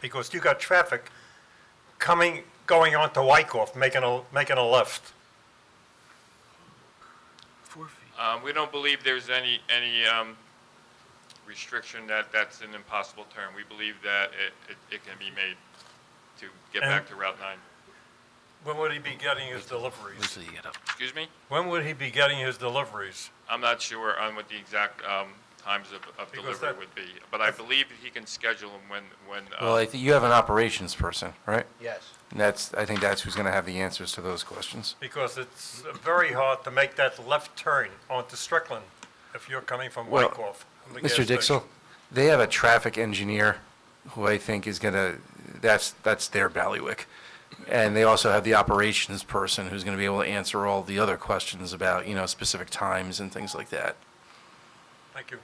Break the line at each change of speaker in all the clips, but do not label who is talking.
because you got traffic coming, going onto Wyckoff, making a, making a left.
Um, We don't believe there's any, any um, restriction that that's an impossible term. We believe that it, it- it can be made to get back to Route 9.
When would he be getting his deliveries?
Usually you get up.
Excuse me?
When would he be getting his deliveries?
I'm not sure on what the exact um, times of- of
Because
delivery
that-
would be, but I believe he can schedule them when, when, uh,
Well, I think you have an operations person, right?
Yes.
And that's, I think that's who's going to have the answers to those questions.
Because it's very hard to make that left turn onto Strickland if you're coming from
Well,
Wyckoff. from the gas
Mr. Dixell,
station.
they have a traffic engineer who I think is going to, that's, that's their ballywick. And they also have the operations person who's going to be able to answer all the other questions about, you know, specific times and things like that.
Thank you.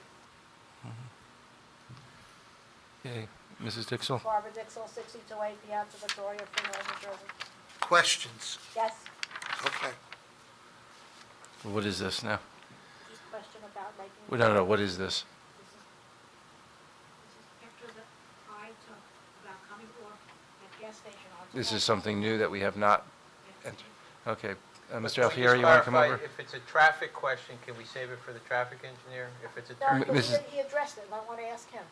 Okay, Mrs. Dixell?
Barbara Dixell, 62A Piazza Victoria, Freetown, New Jersey.
Questions?
Yes,
Okay.
What is this now?
just a question about making.
No, no, no, what is this?
This is a picture that I took about coming off at gas station on.
This is something new that we have not, entered. okay. Uh, Mr.
Can we just
Alfieri, you want to come
clarify,
over?
If it's a traffic question, can we save it for the traffic engineer? If it's a,
No,
M-
because
Mrs.
he he addressed it, and I want to ask him.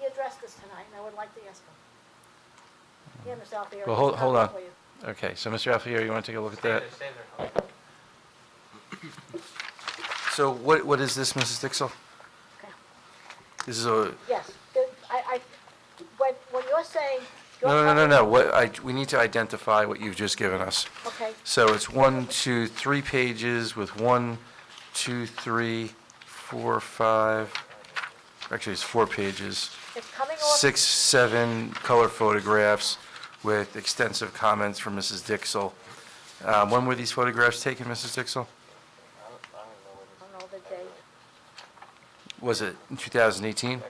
He addressed this tonight, and I would like to ask him. Yeah, Ms. Alfieri.
Well, hold-
it's
hold
not
on.
for you.
Okay, so Mr. Alfieri, you want to take a look at that?
save it.
So what, what is this, Mrs. Dixell?
Okay.
This is a,
Yes, the- I, I, when, when you're saying. you're
no, no, no,
covering-
no, what, I, we need to identify what you've just given us.
Okay,
So it's one, two, three pages with one, two, three, four, five, actually, it's four pages,
it's coming off.
six, seven color photographs with extensive comments from Mrs. Dixell. Uh, When were these photographs taken, Mrs. Dixell?
I don't know the date.
Was it in 2018?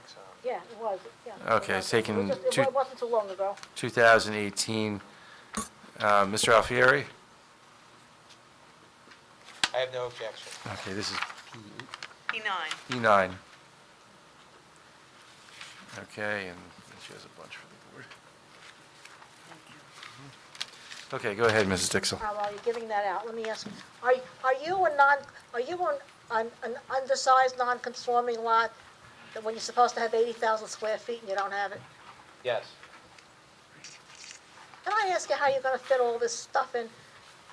Yeah, it was, yeah. it
Okay, it's
was. It was
taken
just- it
two-
wa- wasn't too long ago.
2018. Uh, Mr. Alfieri?
I have no objection.
Okay, this is
P9.
E9. Okay, and she has a bunch for the board. Okay, go ahead, Mrs. Dixell.
How are you giving that out? Let me ask, are, are you a non, are you an, an an undersized, non-conforming lot that when you're supposed to have 80,000 square feet and you don't have it?
Yes.
Can I ask you how you're gonna fit all this stuff in,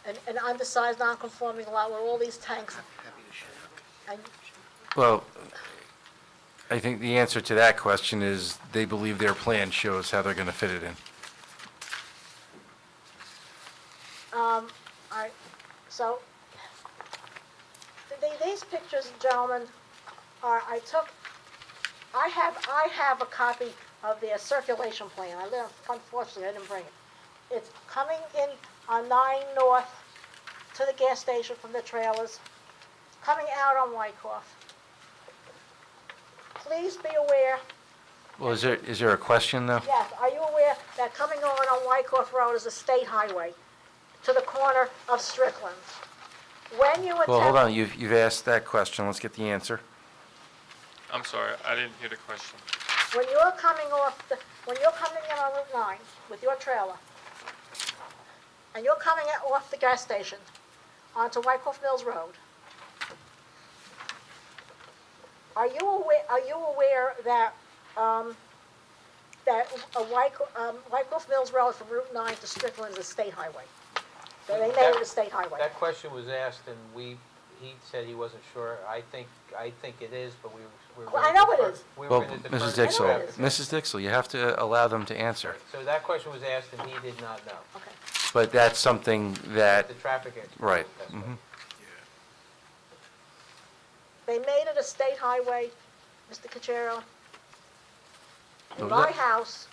an, an undersized, non-conforming lot with all these tanks? And
Well, I think the answer to that question is they believe their plan shows how they're going to fit it in.
All right, Um, so, th- these pictures, gentlemen, are, I took, I have, I have a copy of their circulation plan. I live, unfortunately, I didn't bring it. It's coming in on nine north to the gas station from the trailers, coming out on Wyckoff. Please be aware,
Well, is there, is there a question, though?
yes, are you aware that coming on on Wyckoff Road is a state highway to the corner of Strickland? When you attempt.
Well, hold on, you've, you've asked that question, let's get the answer.
I'm sorry, I didn't hear the question.
When you're coming off, the when you're coming in on Route 9 with your trailer, and you're coming in off the gas station onto Wyckoff Mills Road, are you aware, are you aware that, um, that a Wyckoff, um, Wyckoff Mills Road from Route 9 to Strickland is a state highway? They they made it a state highway.
That question was asked and we, he said he wasn't sure. I think, I think it is, but we were. we were
Well, I know
gonna
it
defer-
is.
we were
Well,
gonna defer
Mrs.
to
Dixell,
Dixell,
traffic.
Mrs. Dixell, you have to uh, allow them to answer.
So that question was asked and he did not know.
Okay.
But that's something that,
The traffic engineer.
Right,
That's right.
mhm.
They made it a state highway, Mr. Cachero.
What was
In my
Oh, that?
house,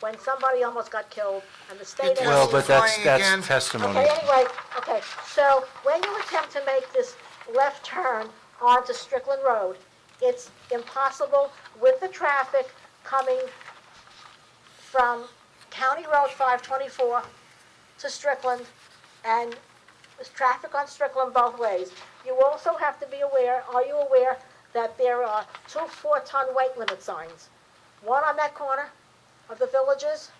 when somebody almost got killed, and the state...
You're
well, but that's,
testifying again.
that's testimony.
Okay, anyway, okay, so when you attempt to make this left turn onto Strickland Road, it's impossible with the traffic coming from County Road 524 to Strickland and there's traffic on Strickland both ways. You also have to be aware, are you aware, that there are two four-ton weight limit signs? One on that corner of the villages?